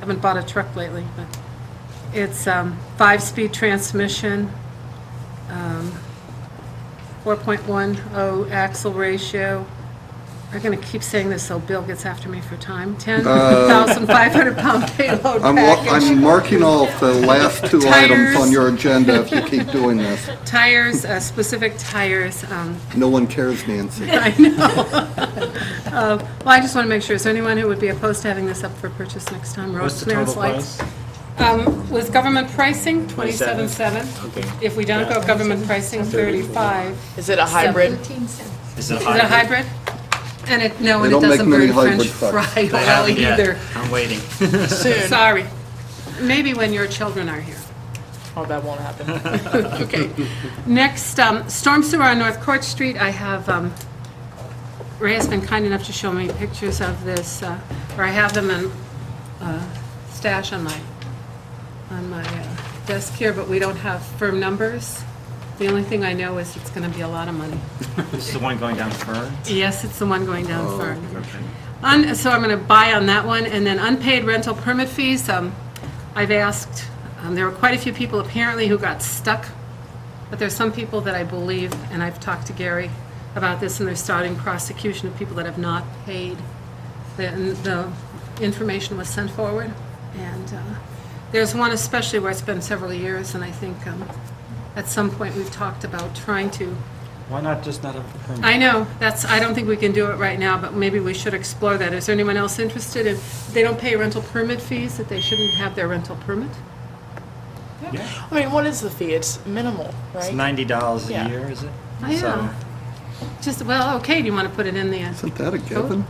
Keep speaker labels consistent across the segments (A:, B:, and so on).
A: Haven't bought a truck lately, but it's um, five-speed transmission, um, 4.10 axle ratio. I'm going to keep saying this so Bill gets after me for time. 10,500 pound payload
B: Uh, I'm, wa- I'm
A: package.
B: marking off the last two items on your agenda if you keep doing this.
A: Tires, uh, specific tires, um,
B: No one cares, Nancy.
A: I know. Uh, Well, I just want to make sure, is there anyone who would be opposed to having this up for purchase next time? Road
C: What's the total
A: clearance lights?
C: price?
A: Um, With government pricing,
C: 27.
A: twenty-seven-seven.
C: Okay.
A: If we don't go government pricing, 35.
D: Is it a hybrid?
C: Is it a
A: Is it a hybrid? And it, no, and
B: They
A: it
B: don't make
A: doesn't
B: many
A: burn french
B: hybrid trucks.
A: fry
C: I haven't
A: oil
C: yet.
A: either.
C: I'm waiting.
D: Soon.
A: Sorry. Maybe when your children are here.
D: Oh, that won't happen.
A: Okay. Next, um, storm sewer on North Court Street, I have, um, Ray has been kind enough to show me pictures of this, uh, or I have them in uh, stash on my, on my uh, desk here, but we don't have firm numbers. The only thing I know is it's going to be a lot of money.
C: This is the one going down Fern?
A: Yes, it's the one going down Fern. Un- So I'm going to buy on that one, and then unpaid rental permit fees, um, I've asked, um, there were quite a few people apparently who got stuck, but there's some people that I believe, and I've talked to Gary about this, and they're starting prosecution of people that have not paid. The and the information was sent forward, and uh, there's one especially where it's been several years, and I think um, at some point we've talked about trying to
C: Why not just not have the permit?
A: I know, that's, I don't think we can do it right now, but maybe we should explore that. Is there anyone else interested in, they don't pay rental permit fees, that they shouldn't have their rental permit?
C: Yeah.
D: I mean, what is the fee? It's minimal,
C: It's
D: right?
C: ninety dollars a
D: Yeah.
C: year, is it?
A: I
C: So-
A: know. Just, well, okay, do you want to put it in the,
B: Isn't that a given?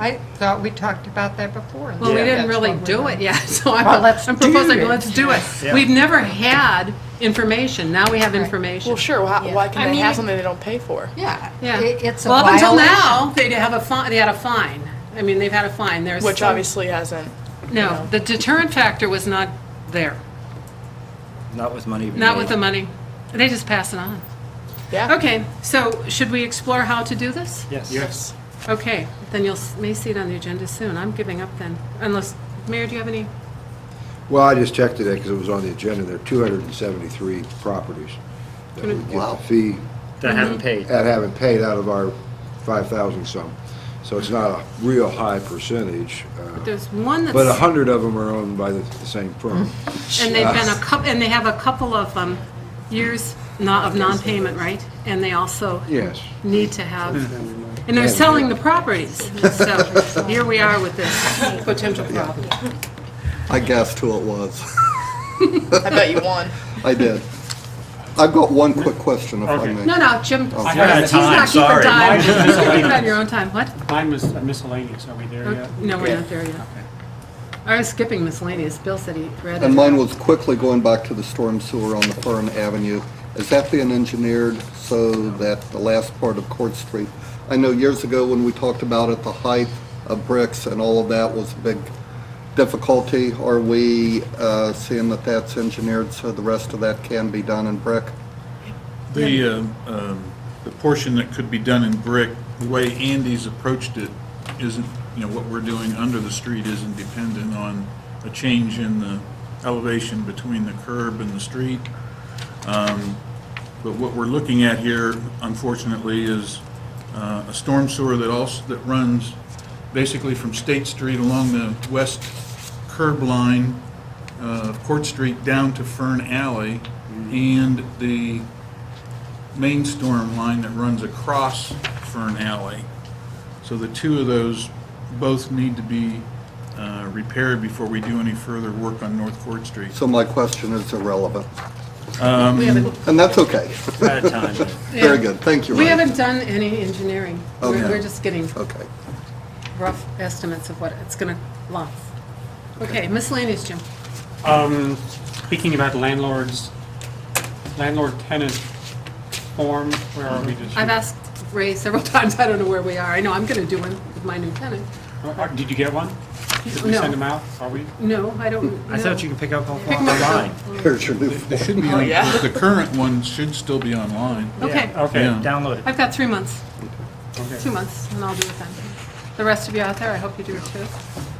E: I thought we talked about that before.
A: well, we
C: Yeah.
A: didn't
E: That's
A: really
E: what we
A: do
E: were-
A: it yet, so I'm
E: Well, let's
A: I'm proposing,
E: do it.
A: let's do it.
C: Yeah.
A: We've never had information, now we have information.
D: Well, sure, why, why
E: I
D: can they
E: mean-
D: have something they don't pay for?
E: Yeah.
A: Yeah.
E: It- It's a
A: Well, up until
E: violation.
A: now, they have a fine, they had a fine. I mean, they've had a fine, there's.
D: Which
A: some-
D: obviously hasn't.
A: No, the deterrent factor was not there,
C: Not with money.
A: not
C: made.
E: Mm-hmm.
A: with the money. They just pass it on.
D: Yeah.
A: Okay, so should we explore how to do this?
C: Yes.
D: Yes.
A: Okay, then you'll, s- may see it on the agenda soon. I'm giving up then, unless, Mayor, do you have any?
F: Well, I just checked today because it was on the agenda. There are 273 properties that would get the fee
C: That
A: Mm-hmm.
C: haven't paid.
F: that haven't paid out of our 5,000 some. So it's not a real high percentage. uh,
A: There's one
F: But
A: that's,
F: 100 of them are owned by the the same firm.
A: and they've been a couple, and they have a couple of um, years not, of non-payment, right? And they also
F: Yes.
A: need to have, and they're selling the properties. So here we are with this potential problem.
B: I guessed who it was.
D: I bet you won.
B: I did. I've got one quick question, if I
G: Okay.
B: may.
A: No, no, Jim, he's
C: I ran out
A: not
C: of time,
A: keeping
C: sorry.
A: time.
G: Mine is
A: He's keeping on your own time. What?
G: Mine was miscellaneous, are we there yet?
A: No, we're not there yet. I was skipping miscellaneous. Bill said he read it.
B: And mine was quickly going back to the storm sewer on the Fern Avenue. Is that being engineered so that the last part of Court Street? I know years ago when we talked about it, the height of bricks and all of that was a big difficulty. Are we uh, seeing that that's engineered so the rest of that can be done in brick?
H: The, um, um, the portion that could be done in brick, the way Andy's approached it isn't, you know, what we're doing under the street isn't dependent on a change in the elevation between the curb and the street. Um, But what we're looking at here, unfortunately, is uh, a storm sewer that also, that runs basically from State Street along the west curb line uh, of Court Street down to Fern Alley, and the main storm line that runs across Fern Alley. So the two of those both need to be uh, repaired before we do any further work on North Court Street.
B: So my question is irrelevant. And that's okay.
C: We're Out of time. but-
B: Very good. Thank you,
A: We
B: Ryan.
A: haven't done any engineering. We're,
B: Okay.
A: we're just getting
B: Okay.
A: rough estimates of what it's gonna cost. Okay, miscellaneous, Jim.
G: Um, speaking about landlords, landlord-tenant form, where are we just?
A: I've asked Ray several times, I don't know where we are. I know I'm gonna do one with my new tenant.
G: Uh, Did you get one? Did we
A: No.
G: send them out? Are we?
A: No, I don't,
C: I
A: no.
C: thought you could pick up off-
A: Pick 'em up.
C: online.
B: Here's your new.
H: They should be, on-
D: Oh, yeah.
H: the current one should still be online.
A: Okay,
G: Okay.
H: Yeah.
C: Download it.
A: I've got three months,
G: Okay.
A: two months, and I'll do it then. The rest of you out there, I hope you do it too.